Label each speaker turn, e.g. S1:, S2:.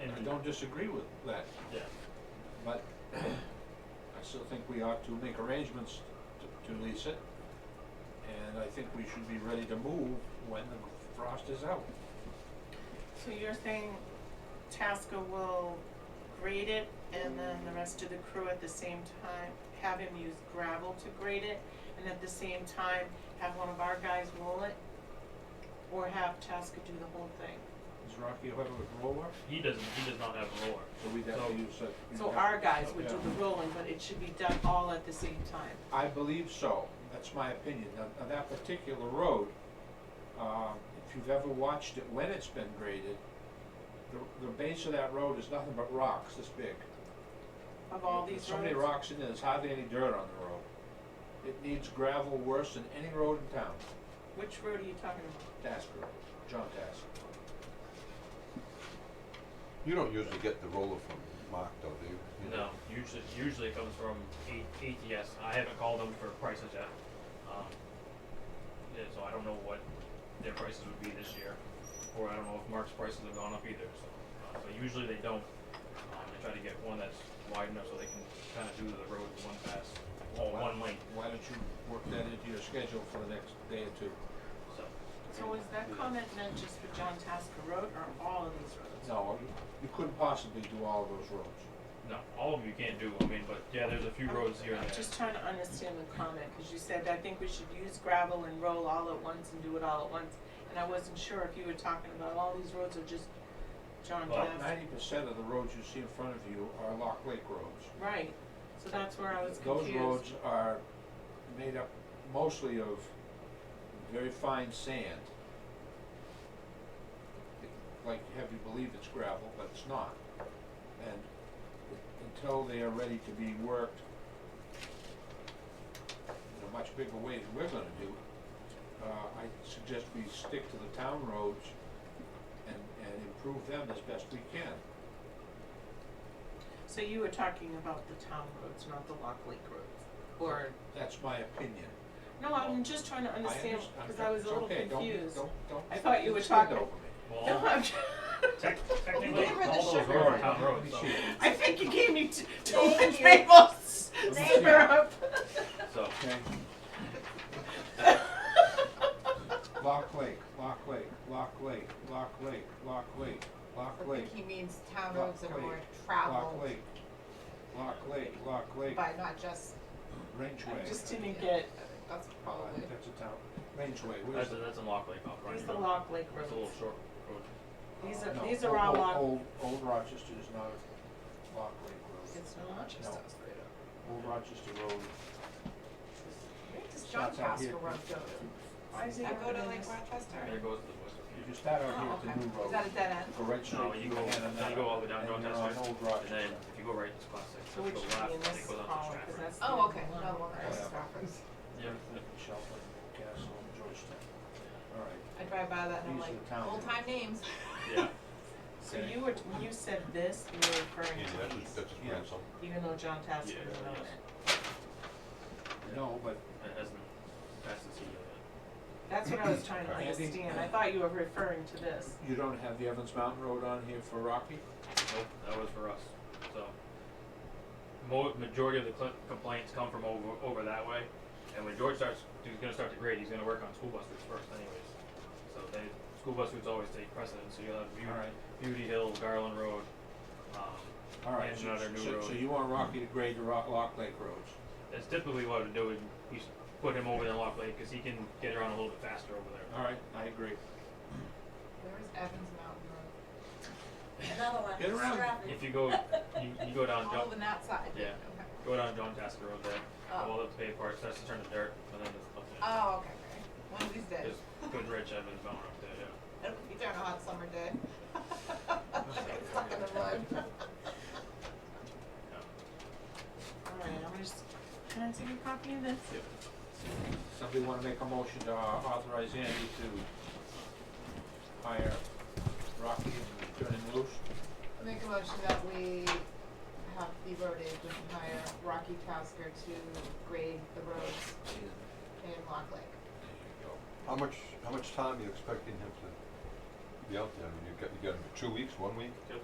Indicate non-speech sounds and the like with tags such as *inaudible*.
S1: don't disagree with that,
S2: Yeah.
S1: but I still think we ought to make arrangements to- to lease it. And I think we should be ready to move when the frost is out.
S3: So you're saying Tasker will grade it and then the rest of the crew at the same time, have him use gravel to grade it and at the same time have one of our guys roll it? Or have Tasker do the whole thing?
S1: Does Rocky have a roller?
S2: He doesn't, he does not have a roller.
S1: So we'd have to use that.
S3: So our guys would do the rolling, but it should be done all at the same time.
S1: I believe so, that's my opinion. On, on that particular road, um, if you've ever watched it when it's been graded, the, the base of that road is nothing but rocks this big.
S3: Of all
S1: There's
S3: these
S1: So many
S3: roads,
S1: rocks in there, there's hardly any dirt on the road. It needs gravel worse than any road in town,
S3: which road are you talking about?
S1: Tasker, John Tasker.
S4: You don't usually get the roller from Mark, though, do you? You
S2: No, usually, usually it comes from A- ATS. I haven't called them for prices yet. Um, yeah, so I don't know what their prices would be this year, or I don't know if Mark's prices have gone up either, so. uh, So usually they don't. Um, they try to get one that's wide enough so they can kind of do the road in one pass, or one lane,
S1: Why don't you work that into your schedule for the next day or two?
S2: so.
S3: So is that comment meant just for John Tasker Road or all of these roads?
S1: No, you- you couldn't possibly do all of those roads.
S2: No, all of you can't do, I mean, but yeah, there's a few roads here and
S3: I'm
S2: there.
S3: just trying to understand the comment, because you said, I think we should use gravel and roll all at once and do it all at once. And I wasn't sure if you were talking about all these roads or just John
S2: Well,
S3: Taft.
S1: Ninety percent of the roads you see in front of you are Lock Lake roads.
S3: Right, so that's where I was
S1: Those
S3: confused.
S1: roads are made up mostly of very fine sand. Like to have you believe it's gravel, but it's not. And until they are ready to be worked in a much bigger way than we're gonna do, uh, I suggest we stick to the town roads and, and improve them as best we can.
S3: So you were talking about the town roads, not the Lock Lake roads, or,
S1: That's my opinion.
S3: no, I'm just trying to understand,
S1: understand.
S3: because I was a
S1: It's
S3: little
S1: okay. Don't-
S3: confused.
S1: don't- don't
S3: I thought you were
S1: stand
S3: talking-
S1: over me.
S2: Well,
S3: *laughs* No, *laughs* I'm,
S2: tec- technically,
S3: gave her the
S2: all those
S3: sugar
S2: roads are
S3: rush.
S2: town roads, so.
S3: I think you gave me t- two
S5: Thank
S3: *laughs*
S5: you.
S3: tables,
S1: Thank you.
S3: syrup.
S2: So,
S1: Okay,
S3: *laughs*
S1: Lock Lake, Lock Lake, Lock Lake, Lock Lake, Lock Lake, Lock
S5: I
S1: Lake,
S5: think he means town
S1: Lock
S5: roads that are more
S1: Lake. Lock
S5: traveled
S1: Lake, Lock Lake, Lock Lake,
S5: by not just,
S1: Rangeway.
S3: I just didn't get,
S5: that's
S1: Uh,
S5: probably.
S1: That's a town, Rangeway, where's
S2: that's,
S1: the?
S2: that's in Lock Lake off, right?
S3: these are Lock Lake roads.
S2: It's a little short road.
S3: These are,
S1: no,
S3: these are all
S1: old-
S3: lock,
S1: Old, old Rochester is not a Lock Lake Road.
S5: It's not just
S1: No.
S5: us right up.
S1: Old Rochester Road,
S5: Where does John
S1: Starts out here.
S5: Tasker Road go to?
S3: why is it?
S5: I go to
S3: everything
S5: like
S3: is-
S2: There
S5: Rochester.
S2: goes the western
S1: if you
S2: Peak.
S1: start out here
S5: Oh,
S1: at
S5: okay.
S1: the new road.
S5: Is that a dead end?
S1: Go right straight.
S2: No, you go, then you go all the way down
S1: and you're on
S2: Dorchester,
S1: Old
S2: and then
S1: Rochester.
S2: if you go right, it's class six,
S3: So
S2: if
S3: which
S2: you go
S3: should
S2: left,
S3: be in
S2: and it
S3: this
S2: goes
S3: column,
S2: on to
S3: because
S2: Stratford.
S3: that's.
S5: Oh,
S3: the
S5: okay,
S3: one.
S5: no, well, that's Stratford's.
S2: Yeah,
S3: *laughs*
S2: *laughs*
S1: Shelton, Castle, and Georgetown. All right,
S5: I drive by that and I'm
S1: These are
S5: like,
S1: the towns.
S5: old time names.
S2: yeah,
S3: So
S1: Okay.
S3: you were, when you said this, you were referring
S4: Yeah,
S3: to
S4: that's just,
S3: these,
S1: Yeah.
S4: that's just ransom.
S3: even though John Tasker
S2: Yeah,
S3: was on
S2: yes.
S3: it.
S1: no, but
S2: that hasn't, that's the CEO yet.
S3: That's what I was trying to
S1: Andy?
S3: understand, I thought you were referring to this.
S1: you don't have the Evans Mountain Road on here for Rocky?
S2: Nope, that was for us, so. Mo- majority of the cl- complaints come from over, over that way, and when George starts, he's gonna start to grade, he's gonna work on school bus routes first anyways. So they, school bus routes always take precedence, so you'll have
S1: All right,
S2: Beauty, Beauty Hill, Garland Road, um,
S1: all right.
S2: And
S1: so-
S2: another new
S1: so- So
S2: road.
S1: you want Rocky to grade the Rock, Lock Lake roads?
S2: That's typically what I would do. Is we s- put him over there lock lane because he can get around a little bit faster over there.
S1: All right, I agree.
S5: Where is Evans Mountain Road?
S6: Another one.
S1: Get around.
S6: Stratford.
S2: If you go, you, you go down
S5: All
S2: John,
S5: over that side.
S2: Yeah.
S5: Okay.
S2: go down John Tasker Road there.
S5: Oh,
S2: All up the paved parts starts to turn to dirt, and then it's up there.
S5: oh, okay, Oh, okay. One of these days.
S2: There's good rich Evans Mountain up there. Yeah.
S5: It'll be during a hot summer day. *laughs*
S1: *laughs*
S5: Stuck in the mud.
S3: Alright, I'm gonna just, can I take a copy of this?
S1: Somebody want to make a motion to uh, authorize Andy to hire Rocky and turn him loose?
S5: Make a motion that we have the road agent hire Rocky Tasker to grade the roads
S1: There you
S5: in Lock Lake.
S1: go.
S4: How much, how much time are you expecting him to be out there? I mean, you got, you got him for two weeks, one week?